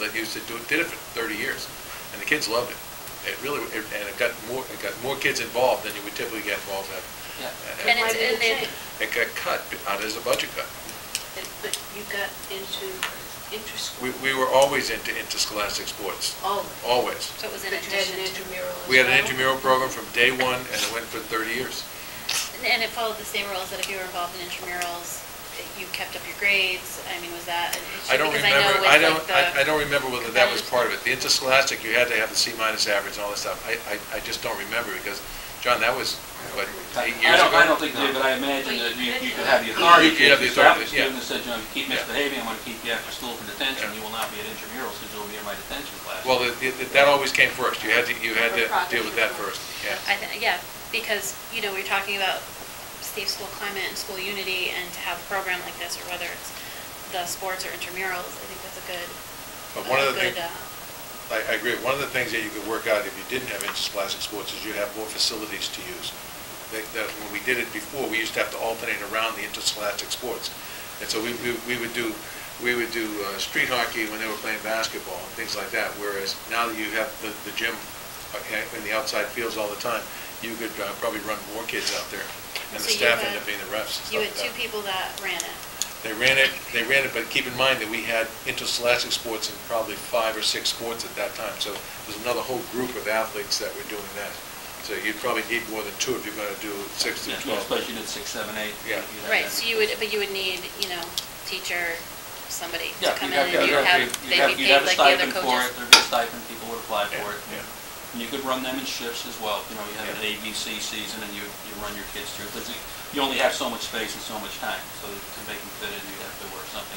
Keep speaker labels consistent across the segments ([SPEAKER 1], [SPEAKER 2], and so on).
[SPEAKER 1] that used to do, did it for thirty years, and the kids loved it. It really, it- and it got more, it got more kids involved than you would typically get involved at.
[SPEAKER 2] Yeah.
[SPEAKER 1] at-
[SPEAKER 3] And
[SPEAKER 1] at-
[SPEAKER 3] it's,
[SPEAKER 4] did it
[SPEAKER 3] and then,
[SPEAKER 4] change?
[SPEAKER 1] It got cut, uh, there's a budget cut.
[SPEAKER 4] And- But you got into inter-school.
[SPEAKER 1] We, we were always into interscholastic sports,
[SPEAKER 4] Always.
[SPEAKER 1] always.
[SPEAKER 3] so it was
[SPEAKER 4] But
[SPEAKER 3] in
[SPEAKER 4] you had an
[SPEAKER 3] addition to,
[SPEAKER 4] intramural as
[SPEAKER 1] We had an
[SPEAKER 4] well?
[SPEAKER 1] intramural program from day one, and it went for thirty years.
[SPEAKER 3] and- and it followed the same rules that if you were involved in intramurals, that you kept up your grades, I mean, was that an issue?
[SPEAKER 1] I don't
[SPEAKER 3] Because
[SPEAKER 1] remember,
[SPEAKER 3] know
[SPEAKER 1] I
[SPEAKER 3] with, like,
[SPEAKER 1] don't, I
[SPEAKER 3] the-
[SPEAKER 1] I don't remember whether that was
[SPEAKER 3] competitive-
[SPEAKER 1] part of it. The interscholastic, you had to have the C minus average and all that stuff. I, I, I just don't remember because, John, that was, what, eight
[SPEAKER 2] I
[SPEAKER 1] years
[SPEAKER 2] don't,
[SPEAKER 1] ago?
[SPEAKER 2] I don't think they, but I imagine
[SPEAKER 4] But
[SPEAKER 2] that
[SPEAKER 4] you
[SPEAKER 2] you,
[SPEAKER 4] could-
[SPEAKER 2] you could have the authority.
[SPEAKER 1] You could have the
[SPEAKER 2] to stop
[SPEAKER 1] authority,
[SPEAKER 2] the
[SPEAKER 1] yeah.
[SPEAKER 2] Student that said, you know, if you keep
[SPEAKER 1] Yeah.
[SPEAKER 2] misbehaving, I'm gonna keep you after school for detention,
[SPEAKER 1] Yeah.
[SPEAKER 2] you will not be at intramurals, because you'll be in my detention class.
[SPEAKER 1] Well, the- the- that always came first. You had to, you had to deal with that first, yeah.
[SPEAKER 3] I thi- yeah, because, you know, we're talking about safe school climate and school unity, and to have a program like this, or whether it's the sports or intramurals, I think that's a good,
[SPEAKER 1] But one
[SPEAKER 3] a
[SPEAKER 1] of the
[SPEAKER 3] good,
[SPEAKER 1] things,
[SPEAKER 3] uh,
[SPEAKER 1] I, I agree, one of the things that you could work out if you didn't have interscholastic sports is you'd have more facilities to use. That, that, when we did it before, we used to have to alternate around the interscholastic sports. And so we, we, we would do, we would do, uh, street hockey when they were playing basketball and things like that, whereas now that you have the, the gym uh, in the outside fields all the time, you could uh, probably run more kids out there. And the
[SPEAKER 3] So you
[SPEAKER 1] staff
[SPEAKER 3] had-
[SPEAKER 1] ended up being the refs and stuff
[SPEAKER 3] you
[SPEAKER 1] like
[SPEAKER 3] had
[SPEAKER 1] that.
[SPEAKER 3] two people that ran it.
[SPEAKER 1] They ran it, they ran it, but keep in mind that we had interscholastic sports in probably five or six sports at that time. So there's another whole group of athletes that were doing that. So you'd probably need more than two if you're going to do six to
[SPEAKER 2] Yeah,
[SPEAKER 1] 12.
[SPEAKER 2] Especially if you did six, seven, eight.
[SPEAKER 1] Yeah.
[SPEAKER 2] you'd have
[SPEAKER 3] Right,
[SPEAKER 2] that.
[SPEAKER 3] so you would, but you would need, you know, teacher, somebody to
[SPEAKER 2] Yeah, you'd
[SPEAKER 3] come in
[SPEAKER 2] have,
[SPEAKER 3] and
[SPEAKER 2] you'd
[SPEAKER 3] you'd have,
[SPEAKER 2] have, you'd
[SPEAKER 3] they'd
[SPEAKER 2] have,
[SPEAKER 3] be
[SPEAKER 2] you'd
[SPEAKER 3] paid
[SPEAKER 2] have a
[SPEAKER 3] like the other
[SPEAKER 2] stipend for it,
[SPEAKER 3] coaches.
[SPEAKER 2] there'd be a stipend, people would apply
[SPEAKER 1] Yeah,
[SPEAKER 2] for it.
[SPEAKER 1] yeah.
[SPEAKER 2] And you could run them in shifts as well, you know, you have an
[SPEAKER 1] Yeah.
[SPEAKER 2] A, B, C season, and you, you run your kids through, because you only have so much space and so much time, so to make them fit in, you'd have to work something.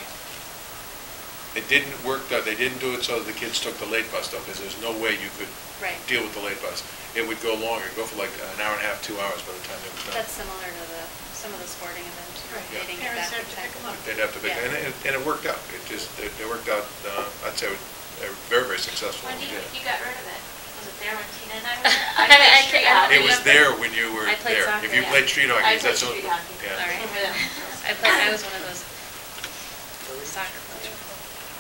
[SPEAKER 1] It didn't work, though, they didn't do it so the kids took the late bus though, because there's no way you could
[SPEAKER 3] Right,
[SPEAKER 1] deal with the late bus. It would go longer, go for like an hour and a half, two hours by the time it was done.
[SPEAKER 3] that's similar to the, some of the sporting events,
[SPEAKER 4] Right.
[SPEAKER 3] they didn't get back
[SPEAKER 4] Parents have to
[SPEAKER 3] in
[SPEAKER 4] pick 'em
[SPEAKER 3] time.
[SPEAKER 4] up.
[SPEAKER 1] They'd have to, pick-
[SPEAKER 3] Yeah.
[SPEAKER 1] and it, and it worked out. It just, it it worked out, uh, I'd say, they were very, very successful
[SPEAKER 4] When
[SPEAKER 1] when we
[SPEAKER 4] do you,
[SPEAKER 1] did it.
[SPEAKER 4] you got rid of it? Was it there when Tina and I were?
[SPEAKER 3] I
[SPEAKER 4] played
[SPEAKER 3] can't-
[SPEAKER 4] street
[SPEAKER 3] I don't
[SPEAKER 4] hockey.
[SPEAKER 1] It was there when you were
[SPEAKER 3] I played
[SPEAKER 1] there.
[SPEAKER 3] soccer,
[SPEAKER 1] If you
[SPEAKER 3] yeah.
[SPEAKER 1] played street hockey,
[SPEAKER 4] I
[SPEAKER 1] that's...
[SPEAKER 4] played
[SPEAKER 1] what-
[SPEAKER 4] street hockey.
[SPEAKER 1] yeah.
[SPEAKER 3] All right.
[SPEAKER 4] Remember that
[SPEAKER 3] I played, I was one of those soccer players.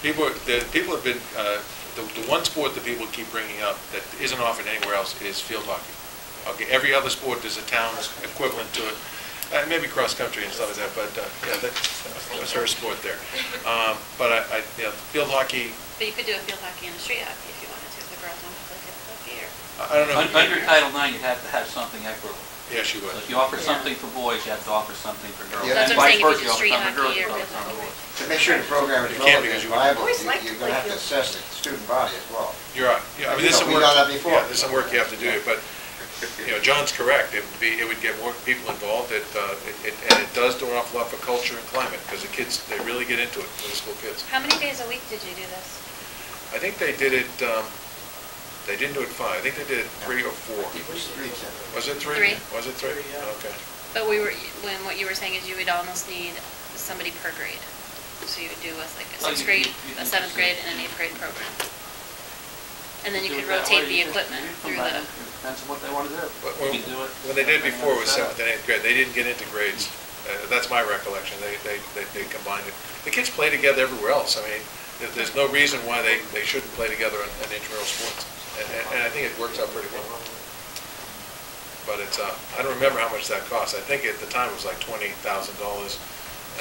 [SPEAKER 1] People, the, people have been, uh, the, the one sport that people keep bringing up that isn't offered anywhere else is field hockey. Okay, every other sport, there's a town's equivalent to it, uh, maybe cross-country and stuff like that, but, uh, yeah, that- that's her sport there. Um, but I, I, you know, field hockey,
[SPEAKER 3] But you could do a field hockey and a street hockey if you wanted to, if the girls wanted to play field hockey or.
[SPEAKER 1] I I don't know.
[SPEAKER 2] Un- Under Title IX, you'd have to have something equitable.
[SPEAKER 1] Yeah, she would.
[SPEAKER 2] So if you offer something for boys, you have to offer something for girls.
[SPEAKER 5] Yeah. That's
[SPEAKER 2] And
[SPEAKER 3] what I'm
[SPEAKER 2] vice versa,
[SPEAKER 3] saying, if you
[SPEAKER 2] you offer something for
[SPEAKER 3] do
[SPEAKER 2] girls,
[SPEAKER 3] street
[SPEAKER 2] you
[SPEAKER 3] hockey
[SPEAKER 2] offer something for
[SPEAKER 3] or
[SPEAKER 2] boys.
[SPEAKER 5] To make sure the program is
[SPEAKER 1] You can't
[SPEAKER 5] relevant
[SPEAKER 1] because
[SPEAKER 5] and
[SPEAKER 1] you-
[SPEAKER 5] viable,
[SPEAKER 4] Always
[SPEAKER 5] you-
[SPEAKER 4] liked
[SPEAKER 5] you're gonna have to
[SPEAKER 4] Lakeville.
[SPEAKER 5] assess the student body as well.
[SPEAKER 1] You're right, yeah, I mean,
[SPEAKER 5] You
[SPEAKER 1] there's some
[SPEAKER 5] know, we
[SPEAKER 1] work.
[SPEAKER 5] done that before.
[SPEAKER 1] Yeah, there's some work you have to do, but, you know, John's correct, it would be, it would get more people involved, it, uh, it- it, and it does do an awful lot for culture and climate, because the kids, they really get into it, middle school kids.
[SPEAKER 3] How many days a week did you do this?
[SPEAKER 1] I think they did it, um, they didn't do it five, I think they did it three or four.
[SPEAKER 5] Streets and-
[SPEAKER 1] Was it three?
[SPEAKER 3] Three.
[SPEAKER 1] Was it three?
[SPEAKER 5] Three, yeah.
[SPEAKER 1] Okay.
[SPEAKER 3] But we were, when what you were saying is you would almost need somebody per grade. So you would do with like a
[SPEAKER 2] Well, Oh, you-
[SPEAKER 3] sixth grade,
[SPEAKER 2] you- you can
[SPEAKER 3] a
[SPEAKER 2] just-
[SPEAKER 3] seventh grade, and an eighth grade program. And then you
[SPEAKER 2] Do it
[SPEAKER 3] could
[SPEAKER 2] that
[SPEAKER 3] rotate
[SPEAKER 2] way,
[SPEAKER 3] the
[SPEAKER 2] you just-
[SPEAKER 3] equipment
[SPEAKER 2] you
[SPEAKER 3] through
[SPEAKER 2] come back
[SPEAKER 3] the,
[SPEAKER 2] and- Depends on what they want to do.
[SPEAKER 1] But
[SPEAKER 2] You
[SPEAKER 1] When
[SPEAKER 2] can do it.
[SPEAKER 1] when they did
[SPEAKER 2] Everything
[SPEAKER 1] before was
[SPEAKER 2] else out.
[SPEAKER 1] seventh and eighth grade, they didn't get into grades. Uh, That's my recollection, they, they, they they combined it. The kids play together everywhere else, I mean, there- there's no reason why they, they shouldn't play together in in intramural sports. And, and- and I think it works out pretty well. But it's, uh, I don't remember how much that cost, I think at the time it was like twenty thousand dollars,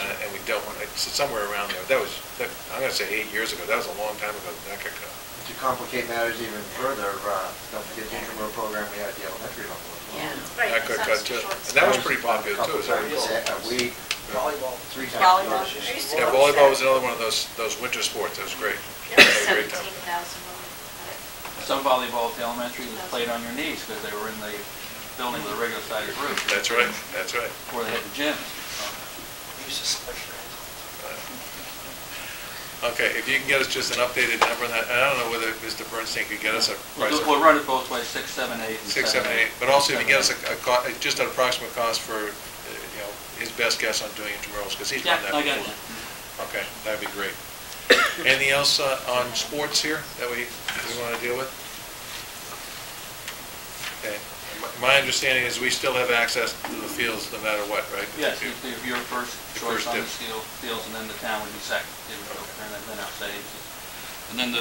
[SPEAKER 1] uh, and we dealt with it, s- somewhere around there. That was, that- I'm gonna say eight years ago, that was a long time ago that that got cut.
[SPEAKER 5] To complicate matters even further, uh, don't forget the intramural program we had at the elementary level. as well.
[SPEAKER 4] Yeah. Right,
[SPEAKER 1] That got
[SPEAKER 4] it's not
[SPEAKER 1] cut
[SPEAKER 4] so
[SPEAKER 1] too.
[SPEAKER 4] short.
[SPEAKER 1] And that was pretty popular too, as
[SPEAKER 5] Couple
[SPEAKER 1] I
[SPEAKER 5] times
[SPEAKER 1] recall.
[SPEAKER 5] a- A week,
[SPEAKER 6] Volleyball.
[SPEAKER 5] three times. a
[SPEAKER 4] Volleyball.
[SPEAKER 5] week.
[SPEAKER 4] I used to
[SPEAKER 1] Yeah,
[SPEAKER 4] love
[SPEAKER 1] volleyball was
[SPEAKER 4] that.
[SPEAKER 1] another one of those, those winter sports, that was great. I
[SPEAKER 4] It was
[SPEAKER 1] had a great time.
[SPEAKER 4] seventeen thousand when we got it.
[SPEAKER 2] Some volleyball at the elementary was played on your knees because they were in the building with a regular sided roof.
[SPEAKER 1] That's right, that's right.
[SPEAKER 2] Before they had the gym.
[SPEAKER 6] We used to splash around.
[SPEAKER 1] Okay, if you can get us just an updated number on that, and I don't know whether Mr. Bernstein could get us a price
[SPEAKER 2] We'll do-
[SPEAKER 1] of
[SPEAKER 2] We'll run it both ways, six, seven, eight, and
[SPEAKER 1] six, seven, eight, but also if you can get us a, a co- uh, just an approximate cost for, uh, you know, his best guess on doing intramurals, because he's
[SPEAKER 2] Yeah,
[SPEAKER 1] done that
[SPEAKER 2] I got
[SPEAKER 1] before. Okay,
[SPEAKER 2] it.
[SPEAKER 1] that'd be great. Anything else uh, on sports here that we, we want to deal with? Okay, My- my understanding is we still have access to the fields no matter what, right?
[SPEAKER 2] Yes, if if you're first
[SPEAKER 1] The
[SPEAKER 2] choice
[SPEAKER 1] first
[SPEAKER 2] on the
[SPEAKER 1] dibs.
[SPEAKER 2] field, fields, and then the town would be second. They would go, And then I'll say, and then the